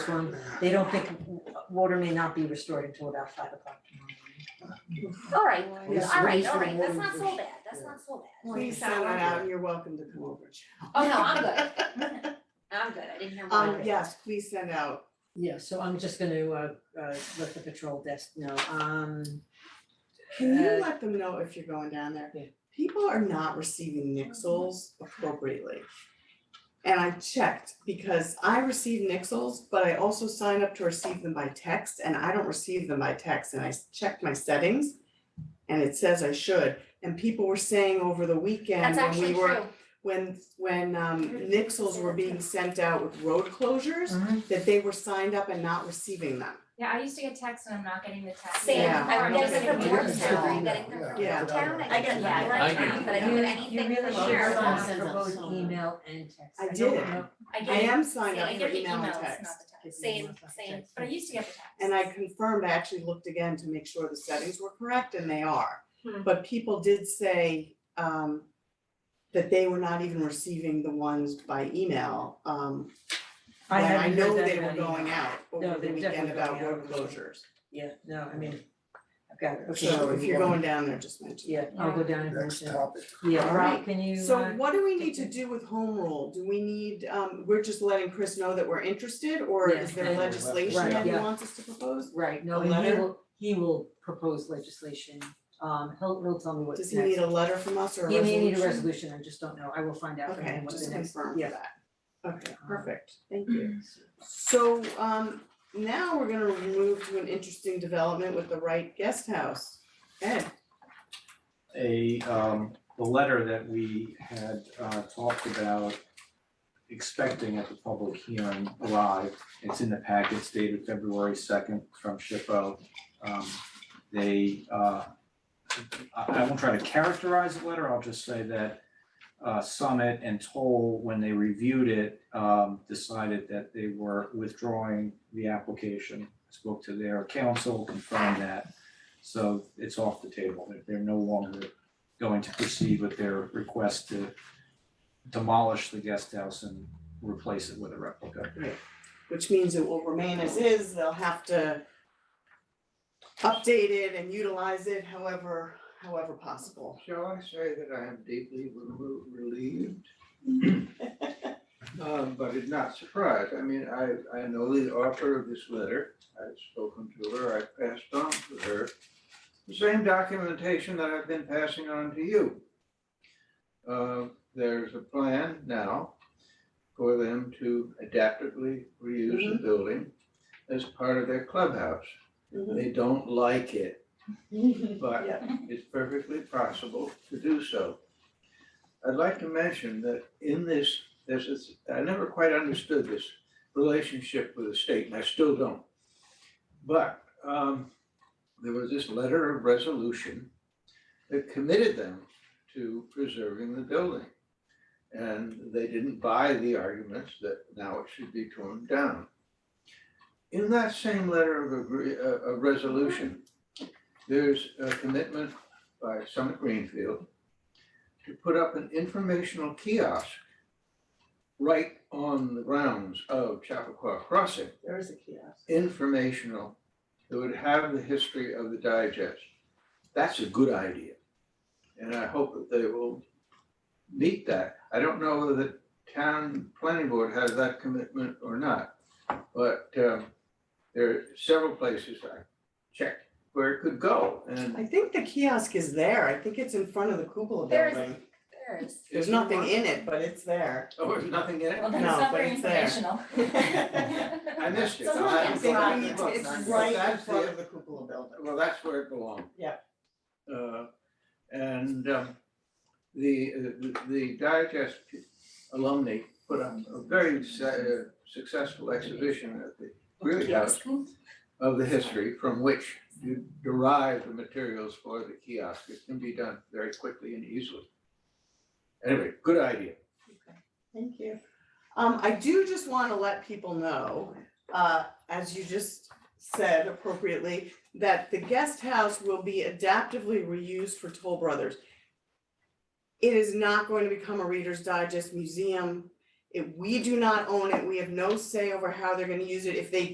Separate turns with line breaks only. one, they don't think water may not be restored until about five o'clock tomorrow.
All right,
Yeah.
all right, all right, that's
Reasonable
not so
workers.
bad, that's
Yeah.
not so bad.
Please send that out, and you're welcome to come over.
Oh, no, I'm good. I'm good, I didn't hear
Um,
one.
yes, please send out,
Yeah, so I'm just gonna uh uh let the patrol desk know, um,
can you
Uh,
let them know if you're going down there?
Yeah.
People are not receiving nixles appropriately. And I checked because I receive nixles, but I also sign up to receive them by text and I don't receive them by text and I s- checked my settings. And it says I should, and people were saying over the weekend
That's
when we
actually
were,
true.
when when um nixles were being sent out with road closures.
Mhm.
That they were signed up and not receiving them.
Yeah, I used to get texts and I'm not getting the text.
Same,
Yeah.
I
don't
get
think
it from
I do.
Georgetown, I
Yeah.
get it from
Yeah.
Georgetown, I
I
get
get
it from
that.
Atlantic,
I get
but I don't
that.
get anything
You
from
really
Well,
should.
Sheriff.
you're
Sure.
on
Send
for
out
both
some.
email and text.
I
don't
did.
know.
I
I
get,
am signed
yeah,
up
I
for
get the
email and
emails, not the
text.
text.
Same, same,
But I used to get the text.
And I confirmed, I actually looked again to make sure the settings were correct and they are.
Hmm.
But people did say um that they were not even receiving the ones by email. Um
I
when I
haven't
know
heard that
they were
about email.
going out
No,
over the
they're
weekend
definitely
about
going out
road
over the
closures.
Yeah, no, I mean, I've got it, okay.
So if you're going down there, just mention.
Yeah, I'll go down and
Next
mention, it.
topic.
yeah, Rob,
Alright,
can you uh?
So what do we need to do with home rule? Do we need, um we're just letting Chris know that we're interested or is
Yeah,
there
and-
legislation
Right,
that he
yeah.
wants us to propose?
Right, no,
A
and he
letter?
will, he will propose legislation, um, he'll he'll tell me what's
Does
next.
he need a letter from us or a
He
resolution?
may need a resolution, I just don't know, I will find out from
Okay,
him what the
just
next,
confirm
yeah.
for that. Okay, perfect, thank you. So um now we're gonna move to an interesting development with the Wright Guest House. Eh, Ed,
a um the letter that we had uh talked about expecting at the public hearing arrived. It's in the packets dated February second from SHPO. Um they uh I I won't try to characterize the letter, I'll just say that uh Summit and Toll, when they reviewed it, um decided that they were withdrawing the application. Spoke to their counsel, confirmed that. So it's off the table, They're- they're no longer going to proceed with their request to demolish the guest house and replace it with a replica.
which means it will remain as is, they'll have to update it and utilize it however, however possible.
Shall I say that I am deeply relu- relieved? Um, but it's not surprised, I mean, I, I know the author of this letter, I've spoken to her, I've passed on to her the same documentation that I've been passing on to you. Uh, there's a plan now for them to adaptively reuse the building as part of their clubhouse.
Mhm.
They don't like it, but
Yeah.
it's perfectly possible to do so. I'd like to mention that in this, this is, I never quite understood this relationship with the state, and I still don't. But um, there was this letter of resolution that committed them to preserving the building. And they didn't buy the arguments that now it should be torn down. In that same letter of agree, uh, of resolution, there's a commitment by Summit Greenfield to put up an informational kiosk right on the grounds of Chappaqua Crossing,
There is a kiosk.
informational, that would have the history of the digest. That's a good idea. And I hope that they will meet that. I don't know whether the town planning board has that commitment or not. But um, there are several places I checked where it could go and
I think the kiosk is there, I think it's in front of the Kugel
There is-
building.
There is.
There's nothing in it, but it's there.
Oh, there's nothing in it?
Well, that's
No,
not
but
very
it's there.
informational.
I missed it.
It's
I'll have to
it's
go back
right-
and look.
It's
But
right in
that's
front of
the-
the cupola building.
Well, that's where it belonged.
Yeah.
Uh, and, um, the, the, the Digest alumni put up a very sa- successful exhibition at the Greeley House of the history from which you derive the materials for the kiosk. It can be done very quickly and easily. Anyway, good idea.
Thank you. Um, I do just wanna let people know, uh, as you just said appropriately, that the guest house will be adaptively reused for Toll Brothers. It is not going to become a Reader's Digest museum. If we do not own it, we have no say over how they're gonna use it. If they